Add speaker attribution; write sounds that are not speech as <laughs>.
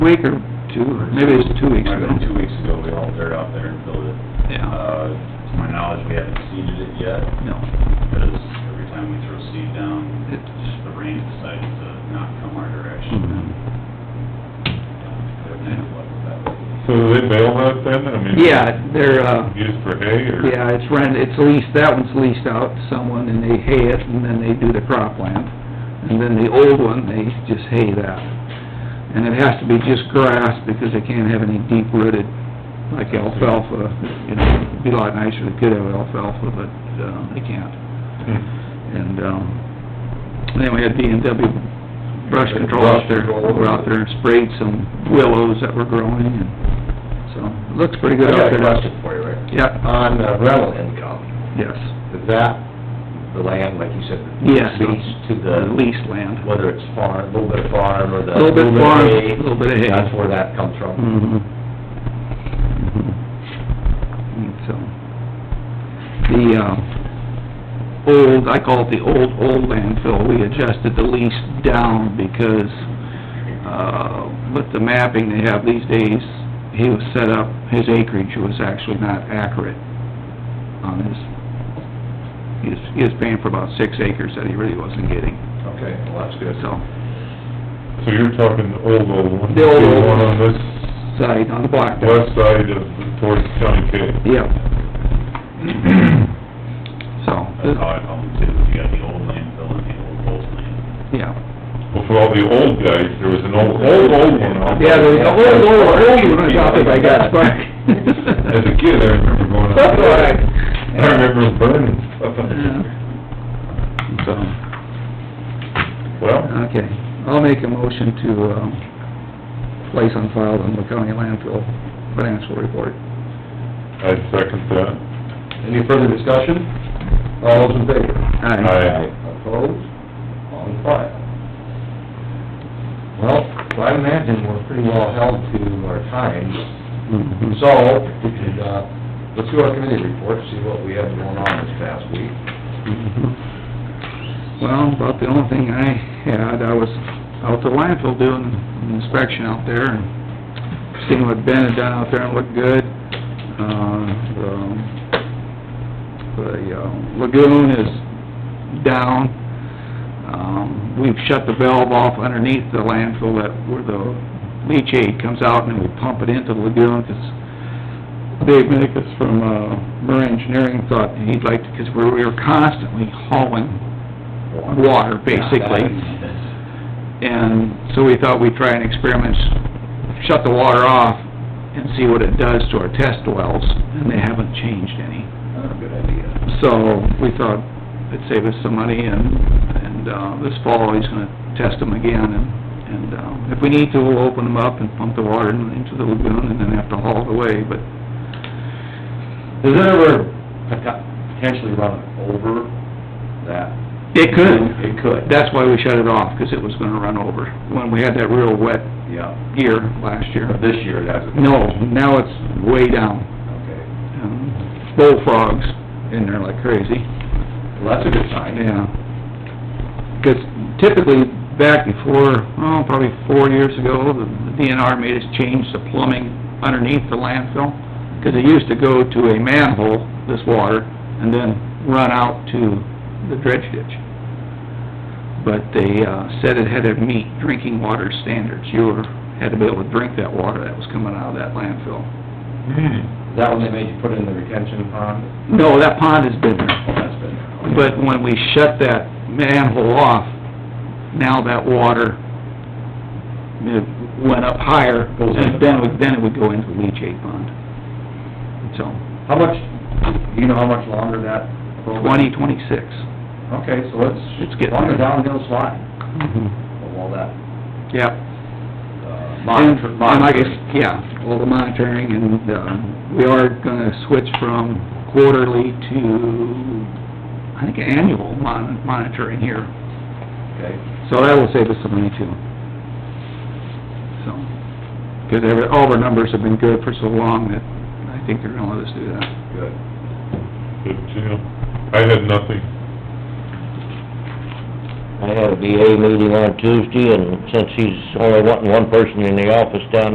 Speaker 1: week or two, maybe it's two weeks
Speaker 2: Might have been
Speaker 1: ago.
Speaker 2: Two weeks ago, we hauled dirt out there and filled it.
Speaker 1: Yeah,
Speaker 2: Uh, to my knowledge, we haven't seeded it yet,
Speaker 1: no,
Speaker 2: because every time we throw seed down,
Speaker 1: it's,
Speaker 2: the rain decides to not come our direction. Uh,
Speaker 1: mm,
Speaker 2: They're kind of luck with that.
Speaker 3: So do they bail that then? I mean,
Speaker 1: yeah, they're, uh,
Speaker 3: Used for hay or? <laughs>
Speaker 1: yeah, it's rent, it's leased, that one's leased out to someone and they hay it and then they do the cropland. And then the old one, they just hay that. And it has to be just grass because they can't have any deep rooted, like alfalfa, you know, it'd be a lot nicer if they could have alfalfa, but, uh, they can't.
Speaker 3: Hmm.
Speaker 1: And, um, and then we had B and W brush control out there, we're out there and sprayed some willows that were growing and, so, it looks pretty good out
Speaker 4: I got a
Speaker 1: there.
Speaker 4: question for you, Rick.
Speaker 1: Yep,
Speaker 4: On uh, rental income,
Speaker 1: yes,
Speaker 4: is that the land, like you said,
Speaker 1: yes.
Speaker 4: leased to
Speaker 1: The
Speaker 4: the,
Speaker 1: Leased land.
Speaker 4: whether it's farm, a little bit of farm or the...
Speaker 1: A little bit farm,
Speaker 4: hay,
Speaker 1: a little bit of hay.
Speaker 4: That's where that comes from.
Speaker 1: Mhm. Mhm. So, the, um, old, I call it the old, old landfill, we adjusted the lease down because, uh, with the mapping they have these days, he was set up, his acreage was actually not accurate on his, he was, he was paying for about six acres that he really wasn't getting,
Speaker 4: Okay, well, that's good.
Speaker 1: so.
Speaker 3: So you're talking the old, old one?
Speaker 1: The old, old
Speaker 3: one
Speaker 1: one.
Speaker 3: on this
Speaker 1: Side on the block there.
Speaker 3: west side of, towards County K?
Speaker 1: Yep. So,
Speaker 2: That's how I call them too, you got the old landfill and the old old land.
Speaker 1: yeah.
Speaker 3: Well, for all the old guys, there was an old, old, old one out
Speaker 1: Yeah,
Speaker 3: there.
Speaker 1: there's a whole, whole, whole one out there by God's <laughs> Park.
Speaker 3: <laughs> As a kid, I remember going out there. I remember it burning stuff.
Speaker 1: Yeah. So,
Speaker 3: Well,
Speaker 1: okay, I'll make a motion to, um, place on file the Humboldt County landfill financial report.
Speaker 3: I second that.
Speaker 4: Any further discussion? All those in favor?
Speaker 1: Aye.
Speaker 4: Opposed? On file. Well, I imagine we're pretty well held to our time,
Speaker 1: Mhm.
Speaker 4: So, we could, uh, let's do our committee report, see what we had going on this past week.
Speaker 1: Mm-hmm. Well, about the only thing I had, I was out to landfill doing an inspection out there and seeing what Ben had done out there and looked good. Uh, the- the uh, lagoon is down. Um, we've shut the valve off underneath the landfill that, where the leachate comes out and then we pump it into the lagoon 'cause Dave Minnickus from, uh, Murray Engineering thought he'd like, because we were constantly hauling water, basically. And so we thought we'd try an experiment, shut the water off and see what it does to our test wells, and they haven't changed any.
Speaker 4: Not a good idea.
Speaker 1: So we thought it'd save us some money and, and, uh, this fall he's gonna test them again and, and, um, if we need to, we'll open them up and pump the water in- into the lagoon and then have to haul it away, but
Speaker 4: Does it ever pot- potentially run over that?
Speaker 1: It could.
Speaker 4: It could.
Speaker 1: That's why we shut it off, 'cause it was gonna run over, when we had that real wet
Speaker 4: Yeah,
Speaker 1: year last year.
Speaker 4: but this year, that's...
Speaker 1: No, now it's way down.
Speaker 4: Okay,
Speaker 1: Um, Bullfrogs in there like crazy,
Speaker 4: well, that's a good sign.
Speaker 1: yeah. 'Cause typically, back before, oh, probably four years ago, the DNR made us change the plumbing underneath the landfill, 'cause it used to go to a manhole, this water, and then run out to the dredge ditch. but they, uh, said it had to meet drinking water standards. You were, had to be able to drink that water that was coming out of that landfill.
Speaker 3: Hmm.
Speaker 4: Is that when they made you put in the retention pond?
Speaker 1: No, that pond has been there,
Speaker 4: Oh, that's been there. okay.
Speaker 1: but when we shut that manhole off, now that water, it went up higher,
Speaker 4: Goes in the
Speaker 1: and then, it would- then it would go into the leachate pond. So,
Speaker 4: How much, do you know how much longer that program?
Speaker 1: twenty twenty-six.
Speaker 4: Okay, so it's...
Speaker 1: It's getting
Speaker 4: On the
Speaker 1: there.
Speaker 4: downhill slide of all that,
Speaker 1: Yep.
Speaker 4: uh,
Speaker 1: And,
Speaker 4: monitor...
Speaker 1: and like I, s- yeah, all the monitoring, and, um, we are gonna switch from quarterly to, I think, annual mon- monitoring here,
Speaker 4: Okay.
Speaker 1: so that will save us some money too. So, 'cause every, all of our numbers have been good for so long that I think they're gonna let us do that.
Speaker 4: Good.
Speaker 3: Good deal. I had nothing.
Speaker 5: I had a VA meeting on Tuesday, and since he's only wanting one person in the office down